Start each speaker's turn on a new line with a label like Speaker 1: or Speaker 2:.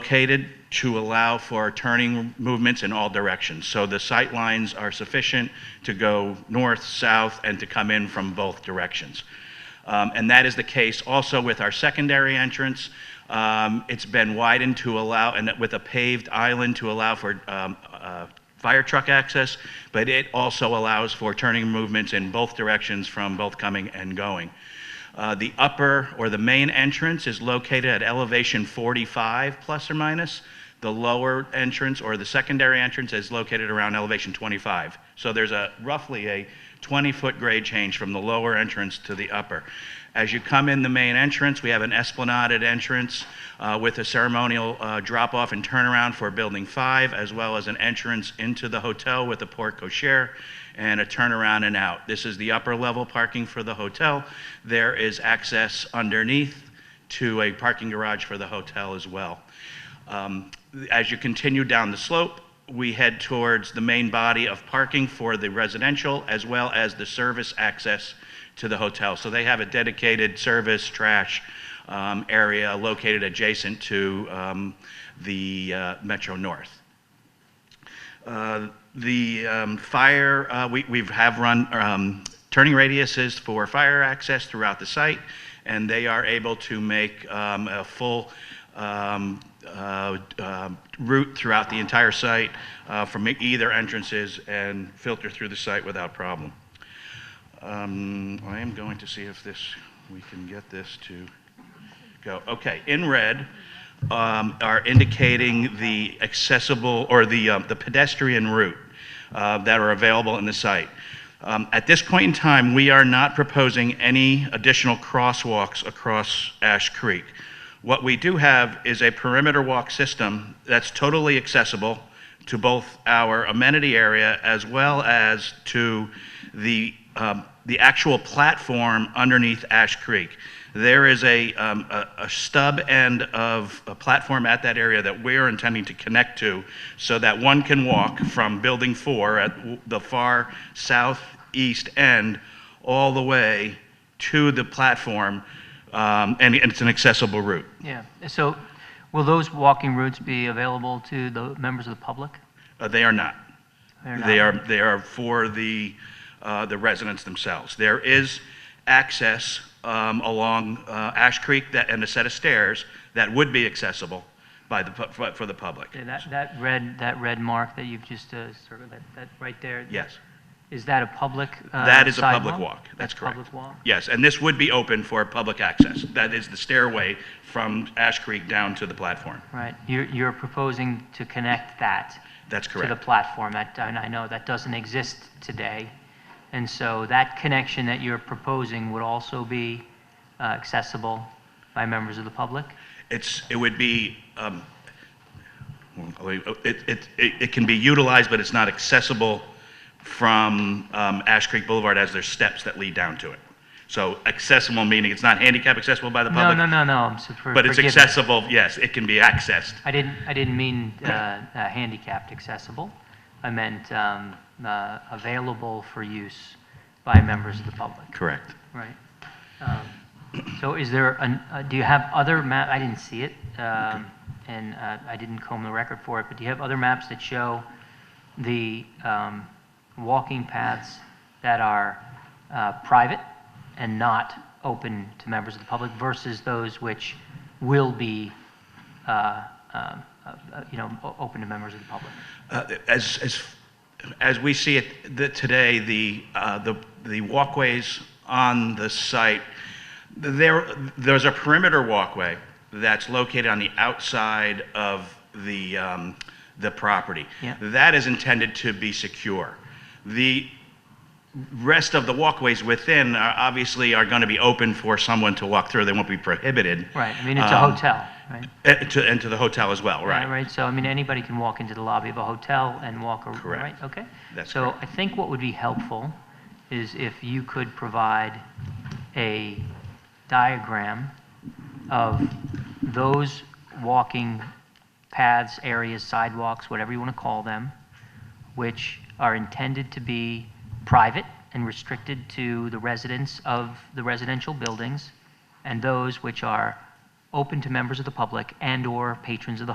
Speaker 1: located to allow for turning movements in all directions. So the sight lines are sufficient to go north, south, and to come in from both directions. Um, And that is the case also with our secondary entrance. Um, It's been widened to allow, and with a paved island to allow for um, uh, fire truck access, but it also allows for turning movements in both directions from both coming and going. Uh, The upper or the main entrance is located at elevation 45 plus or minus. The lower entrance or the secondary entrance is located around elevation 25. So there's a roughly a 20-foot grade change from the lower entrance to the upper. As you come in the main entrance, we have an esplanaded entrance uh, with a ceremonial uh, drop-off and turnaround for Building 5, as well as an entrance into the hotel with a porte cochere and a turnaround and out. This is the upper level parking for the hotel. There is access underneath to a parking garage for the hotel as well. Um, As you continue down the slope, we head towards the main body of parking for the residential as well as the service access to the hotel. So they have a dedicated service trash um, area located adjacent to um, the uh, Metro North. Uh, The um, fire, uh, we we have run um, turning radiuses for fire access throughout the site, and they are able to make um, a full um, uh, um, route throughout the entire site uh, from either entrances and filter through the site without problem. Um, I am going to see if this, we can get this to go. Okay, in red um, are indicating the accessible, or the um, the pedestrian route uh, that are available in the site. Um, At this point in time, we are not proposing any additional crosswalks across Ash Creek. What we do have is a perimeter walk system that's totally accessible to both our amenity area as well as to the, um, the actual platform underneath Ash Creek. There is a, um, a, a stub end of a platform at that area that we're intending to connect to so that one can walk from Building 4 at w- the far southeast end all the way to the platform, um, and and it's an accessible route.
Speaker 2: Yeah, so will those walking routes be available to the members of the public?
Speaker 1: Uh, They are not.
Speaker 2: They're
Speaker 1: They
Speaker 2: not.
Speaker 1: are, they are for the, uh, the residents themselves. There is access um, along uh, Ash Creek that- and a set of stairs that would be accessible by the, pu- for for the public.
Speaker 2: Okay, That, that red, that red mark that you've just, uh, sort of, that, that right there?
Speaker 1: Yes.
Speaker 2: Is that a public uh,
Speaker 1: That is a public
Speaker 2: sidewalk?
Speaker 1: walk. That's correct.
Speaker 2: Public walk?
Speaker 1: Yes, and this would be open for public access. That is the stairway from Ash Creek down to the platform.
Speaker 2: Right, you're, you're proposing to connect that?
Speaker 1: That's
Speaker 2: To
Speaker 1: correct.
Speaker 2: the platform, that, and I know that doesn't exist today. And so that connection that you're proposing would also be uh, accessible by members of the public?
Speaker 1: It's, it would be, um, well, it, it, it it can be utilized, but it's not accessible from um, Ash Creek Boulevard as there's steps that lead down to it. So accessible meaning it's not handicap accessible by the
Speaker 2: No,
Speaker 1: public.
Speaker 2: no, no, no, I'm so- for-
Speaker 1: But it's
Speaker 2: forgive me.
Speaker 1: accessible, yes, it can be accessed.
Speaker 2: I didn't, I didn't mean uh, uh, handicapped accessible. I meant um, uh, available for use by members of the public,
Speaker 1: Correct.
Speaker 2: right? Um, So is there, an- uh, do you have other map, I didn't see it, um, and uh, I didn't comb the record for it, but do you have other maps that show the um, walking paths that are uh, private and not open to members of the public versus those which will be uh, um, uh, uh, you know, o- open to members of the public.
Speaker 1: Uh, As, as, as we see it the- today, the, uh, the, the walkways on the site, there, there's a perimeter walkway that's located on the outside of the, um, the property.
Speaker 2: Yeah.
Speaker 1: That is intended to be secure. The rest of the walkways within are, obviously are going to be open for someone to walk through. They won't be prohibited.
Speaker 2: Right, I mean, it's a
Speaker 1: Um,
Speaker 2: hotel, right?
Speaker 1: eh, to- And to the hotel as well, right?
Speaker 2: Right, so I mean, anybody can walk into the lobby of a hotel and walk, ar-
Speaker 1: Correct.
Speaker 2: right, okay?
Speaker 1: That's
Speaker 2: So I think what would be helpful is if you could provide a diagram of those walking paths, areas, sidewalks, whatever you want to call them, which are intended to be private and restricted to the residents of the residential buildings, and those which are open to members of the public and/or patrons of the